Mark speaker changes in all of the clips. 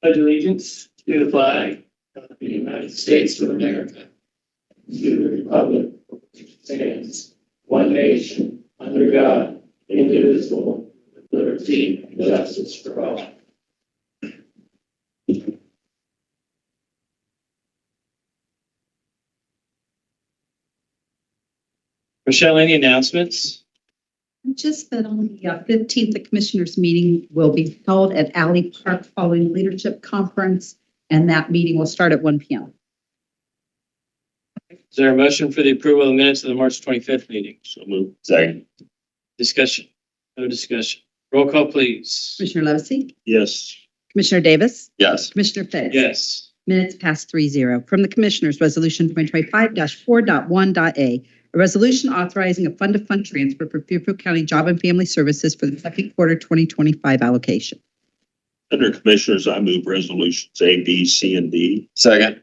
Speaker 1: pledge allegiance to the flag of the United States of America. To the republic for which it stands one nation under God, indivisible, with liberty and justice for all. Michelle, any announcements?
Speaker 2: Just that on the uh, fifteenth, the commissioners' meeting will be held at Alley Park following the leadership conference, and that meeting will start at one P M.
Speaker 1: Is there a motion for the approval of the minutes of the March twenty-fifth meeting?
Speaker 3: So moved. Second.
Speaker 1: Discussion? No discussion. Roll call, please.
Speaker 2: Commissioner Levesey?
Speaker 3: Yes.
Speaker 2: Commissioner Davis?
Speaker 3: Yes.
Speaker 2: Commissioner Fix?
Speaker 1: Yes.
Speaker 2: Minutes past three zero. From the Commissioners, Resolution twenty twenty-five dash four dot one dot A. A resolution authorizing a fund-to-fund transfer for Fairfield County Job and Family Services for the second quarter twenty twenty-five allocation.
Speaker 3: Under Commissioners, I move resolutions A, B, C, and D. Second.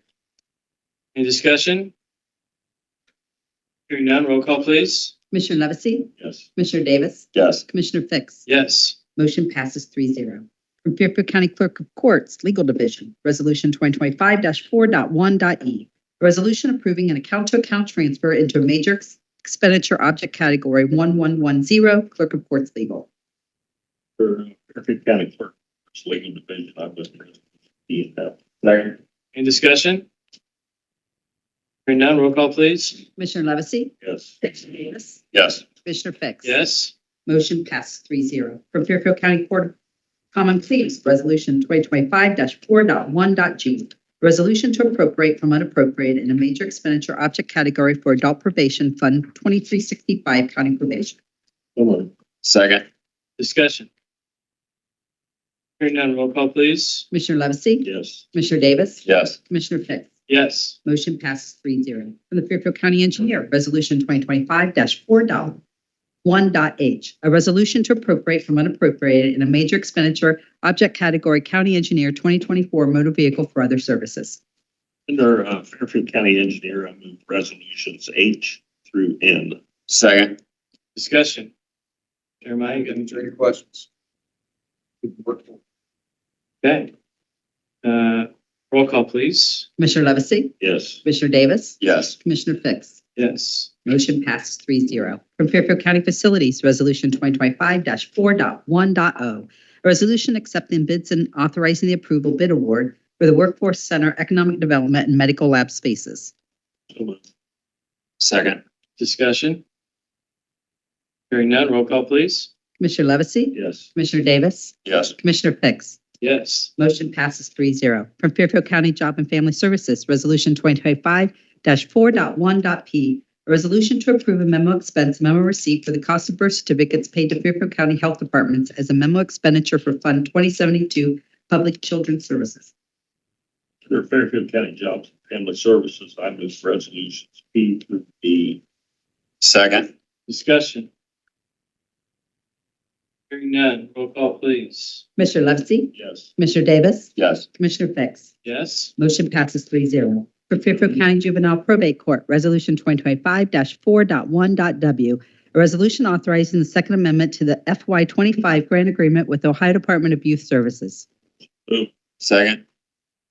Speaker 1: Any discussion? Hearing none, roll call, please.
Speaker 2: Commissioner Levesey?
Speaker 3: Yes.
Speaker 2: Commissioner Davis?
Speaker 3: Yes.
Speaker 2: Commissioner Fix?
Speaker 1: Yes.
Speaker 2: Motion passes three zero. From Fairfield County Clerk of Courts, Legal Division, Resolution twenty twenty-five dash four dot one dot E. A resolution approving an account-to-account transfer into a major ex- expenditure object category one one one zero, Clerk of Courts Legal.
Speaker 3: For Fairfield County Clerk, Courts Legal Division, I move resolutions E and F. Second.
Speaker 1: Any discussion? Hearing none, roll call, please.
Speaker 2: Commissioner Levesey?
Speaker 3: Yes.
Speaker 2: Commissioner Davis?
Speaker 3: Yes.
Speaker 2: Commissioner Fix?
Speaker 1: Yes.
Speaker 2: Motion passes three zero. From Fairfield County Court of Common Pleas, Resolution twenty twenty-five dash four dot one dot G. Resolution to appropriate from unappropriated in a major expenditure object category for adult probation fund twenty-three sixty-five county probation.
Speaker 3: So moved. Second.
Speaker 1: Discussion? Hearing none, roll call, please.
Speaker 2: Commissioner Levesey?
Speaker 3: Yes.
Speaker 2: Commissioner Davis?
Speaker 3: Yes.
Speaker 2: Commissioner Fix?
Speaker 1: Yes.
Speaker 2: Motion passes three zero. From the Fairfield County Engineer, Resolution twenty twenty-five dash four dot one dot H. A resolution to appropriate from unappropriated in a major expenditure object category County Engineer twenty twenty-four motor vehicle for other services.
Speaker 3: Under uh, Fairfield County Engineer, I move resolutions H through N. Second.
Speaker 1: Discussion? Jeremiah, you got any
Speaker 4: Any questions?
Speaker 1: Okay. Uh, roll call, please.
Speaker 2: Commissioner Levesey?
Speaker 3: Yes.
Speaker 2: Commissioner Davis?
Speaker 3: Yes.
Speaker 2: Commissioner Fix?
Speaker 1: Yes.
Speaker 2: Motion passes three zero. From Fairfield County Facilities, Resolution twenty twenty-five dash four dot one dot O. A resolution accepting bids and authorizing the approval bid award for the Workforce Center Economic Development and Medical Lab Spaces.
Speaker 3: So moved. Second.
Speaker 1: Discussion? Hearing none, roll call, please.
Speaker 2: Commissioner Levesey?
Speaker 3: Yes.
Speaker 2: Commissioner Davis?
Speaker 3: Yes.
Speaker 2: Commissioner Fix?
Speaker 1: Yes.
Speaker 2: Motion passes three zero. From Fairfield County Job and Family Services, Resolution twenty twenty-five dash four dot one dot P. A resolution to approve a memo expense memo receipt for the cost of birth certificates paid to Fairfield County Health Departments as a memo expenditure for Fund twenty seventy-two Public Children's Services.
Speaker 3: Under Fairfield County Jobs and Family Services, I move resolutions P through D. Second.
Speaker 1: Discussion? Hearing none, roll call, please.
Speaker 2: Commissioner Levesey?
Speaker 3: Yes.
Speaker 2: Commissioner Davis?
Speaker 3: Yes.
Speaker 2: Commissioner Fix?
Speaker 1: Yes.
Speaker 2: Motion passes three zero. For Fairfield County Juvenile Probate Court, Resolution twenty twenty-five dash four dot one dot W. A resolution authorizing the Second Amendment to the FY twenty-five grant agreement with Ohio Department of Youth Services.
Speaker 3: Second.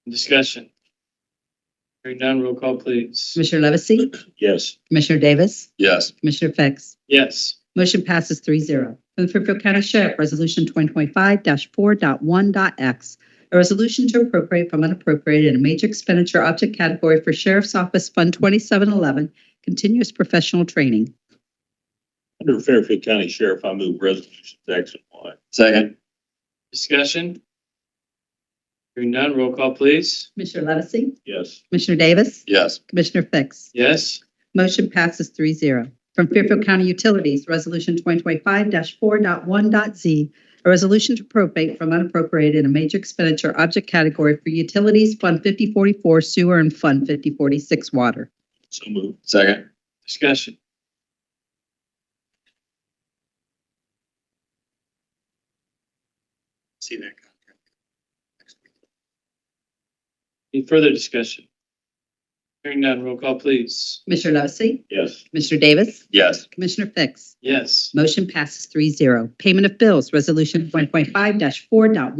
Speaker 1: Discussion? Hearing none, roll call, please.
Speaker 2: Commissioner Levesey?
Speaker 3: Yes.
Speaker 2: Commissioner Davis?
Speaker 3: Yes.
Speaker 2: Commissioner Fix?
Speaker 1: Yes.
Speaker 2: Motion passes three zero. From the Fairfield County Sheriff, Resolution twenty twenty-five dash four dot one dot X. A resolution to appropriate from unappropriated in a major expenditure object category for Sheriff's Office Fund twenty-seven eleven, continuous professional training.
Speaker 3: Under Fairfield County Sheriff, I move resolutions X and Y. Second.
Speaker 1: Discussion? Hearing none, roll call, please.
Speaker 2: Commissioner Levesey?
Speaker 3: Yes.
Speaker 2: Commissioner Davis?
Speaker 3: Yes.
Speaker 2: Commissioner Fix?
Speaker 1: Yes.
Speaker 2: Motion passes three zero. From Fairfield County Utilities, Resolution 2025-4.1.z, a resolution to appropriate from unappropriated in a major expenditure object category for utilities, Fund 5044 sewer and Fund 5046 water.
Speaker 3: So moved. Second.
Speaker 1: Discussion?
Speaker 3: See that contract.
Speaker 1: Any further discussion? Hearing none, roll call, please.
Speaker 2: Commissioner Levesey?
Speaker 3: Yes.
Speaker 2: Commissioner Davis?
Speaker 3: Yes.
Speaker 2: Commissioner Fix?
Speaker 1: Yes.
Speaker 2: Motion passes three zero. Payment of bills, Resolution 2025-4.1.